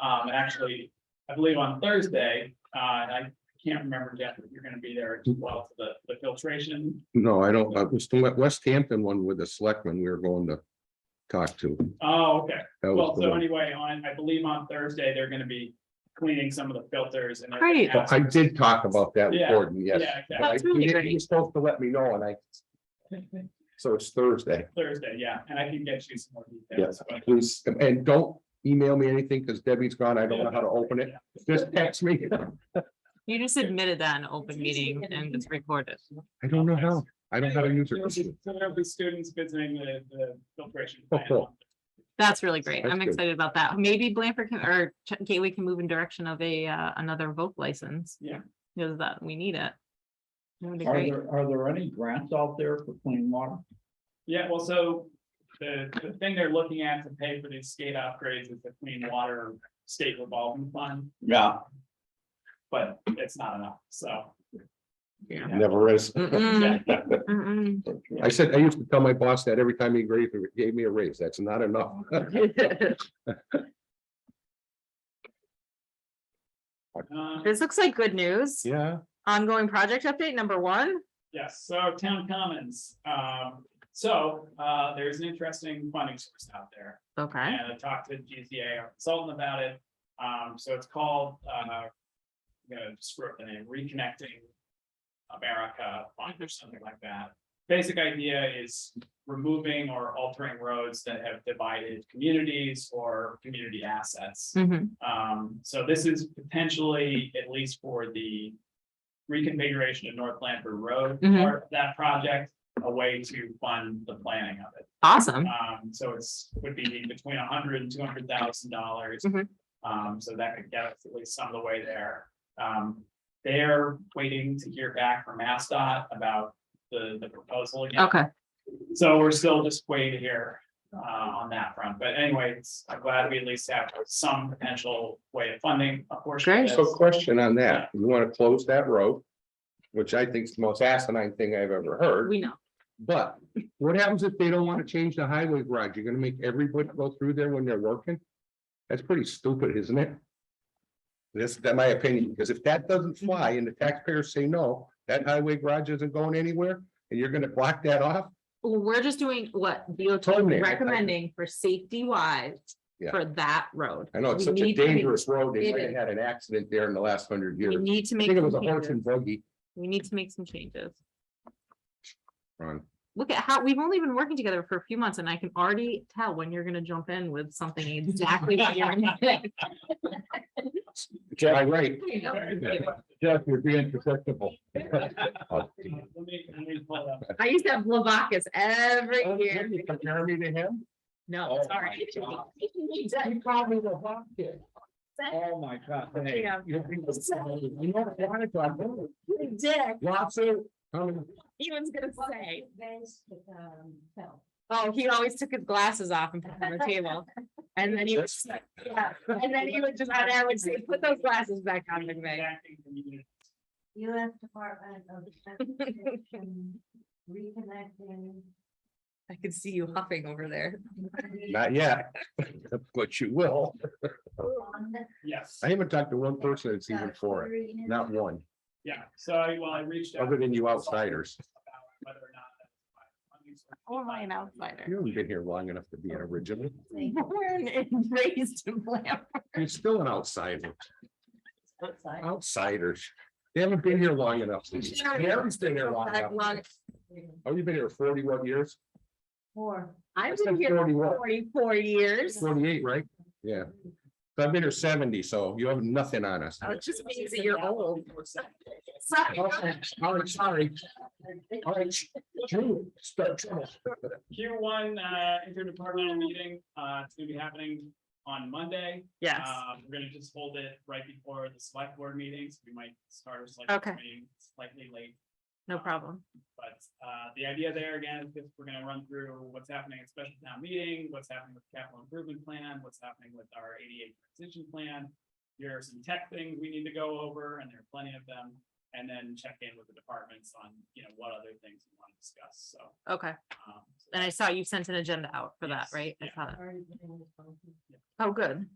Um, and actually, I believe on Thursday, uh, and I can't remember, Jeff, if you're gonna be there as well for the, the filtration. No, I don't, uh, it was the West- West Hampton one with the selectmen we were going to talk to. Oh, okay. That Well, was the so one. anyway, on, I believe on Thursday, they're gonna be cleaning some of the filters and. they're gonna Great. have I some- did talk about that with Yeah, Gordon, yes. Yeah, But I- That's he really didn't- great. He's supposed to let me know and I, exactly. so it's Thursday. Thursday, yeah, and I can get you some more details. but- Please, and don't email me anything because Debbie's gone. I don't know how to open it. Yeah. Just text me. You just admitted that in open meeting and it's recorded. I don't know how. I don't know how to use There'll it. be- So there'll be students visiting the, the filtration. Oh, plant. cool. That's really great. That's I'm good. excited about that. Maybe Blanford can, or Ch- Gateway can move in direction of a, uh, another vote license. Yeah. Because that, we need it. That would be Are great. there, are there any grants out there for clean water? Yeah, well, so the, the thing they're looking at to pay for these skate upgrades is the clean water state revolving fund, Yeah. but it's not enough, so. Yeah. Never is. Mm-mm, mm-mm. I said, I used to tell my boss that every time he gave, gave me a raise. That's not enough. Uh, This looks like good news. Yeah. Ongoing project update number one. Yes, so town commons, um, so, uh, there's an interesting funding source out there. Okay. And I talked to GZA, our consultant about it. Um, so it's called, uh, I'm gonna just wrote the name, Reconnecting America Fund or something like that. Basic idea is removing or altering roads that have divided communities or community assets. Mhm. Um, so this is potentially, at least for the reconfiguration of North Blanford Road, Mhm. part of that project, a way to fund the planning of it. Awesome. Um, so it's, would be between a hundred and two hundred thousand dollars. Mhm. Um, so that could get us at least some of the way there. Um, they're waiting to hear back from MassDOT about the, the proposal again. Okay. So we're still just waiting to hear, uh, on that front. But anyways, I'm glad we at least have some potential way of funding a portion of Great. this. So question on that, you want to close that road, which I think is the most asinine thing I've ever heard, We know. but what happens if they don't want to change the highway garage? You're gonna make everybody go through there when they're working? That's pretty stupid, isn't it? That's that my opinion, because if that doesn't fly and the taxpayers say no, that highway garage isn't going anywhere and you're gonna block that off? Well, We're just doing what DOT Told me, I- I- recommending for safety wise Yeah. for that road. I know it's We such a need to make- dangerous road. They It might have is. had an accident there in the last hundred We years. need to I make. think it was a some horse and changes. buggy. We need to make some changes. Ron. Look at how, we've only been working together for a few months and I can already tell when you're gonna jump in with something exactly. what you're gonna- Jeff, I'm right. Let Jeff, you're being susceptible. me, let me pull it up. I used to have Blavacus every Oh, year. Compare me to him? No, Oh sorry. my God. You call me the hot kid. Oh, my God. hey. Yeah. You're being susceptible. You know what I'm talking You dick. about? Lawsuit. Um, He was gonna say, um, so. oh, he always took his glasses off and put them on the table. And then he would, yeah, and then he would just, and I would say, put those glasses back on, McVeigh. Acting community. US Department of Transportation reconnecting. I could see you huffing over there. Not yet. But you will. Yes, I haven't talked to one person that's even for it. Not one, yeah, so I, well, I reached out. other than you outsiders. about whether or not. that's why funding source is Only an provided. outsider. You haven't been here long enough to be an original. Born and raised in Blanford. You're still an outsider. Outsiders. They haven't been here long enough. Karen's been here long That enough. long- Oh, you've been here forty-one years, Four. I've said been here 41. for forty-four years. forty-eight, right? Yeah. So I've been here seventy, so you have nothing on us. Oh, It just means that you're old. Sorry. All right, all right, sorry. All right, Drew, start trouble. Q one, uh, interdepartmental meeting, uh, it's gonna be happening on Monday. Yes. Um, we're gonna just hold it right before the select board meetings. We might start our select Okay. board meeting slightly late. No problem. But, uh, the idea there again is just we're gonna run through what's happening at special town meeting, what's happening with capital improvement plan, what's happening with our ADA transition plan. Here are some tech things we need to go over, and there are plenty of them, and then check in with the departments on, you know, what other things we want to discuss, so. Okay. um, so And I saw you sent an agenda out for that, Yes, right? I yeah. saw that. Oh, good.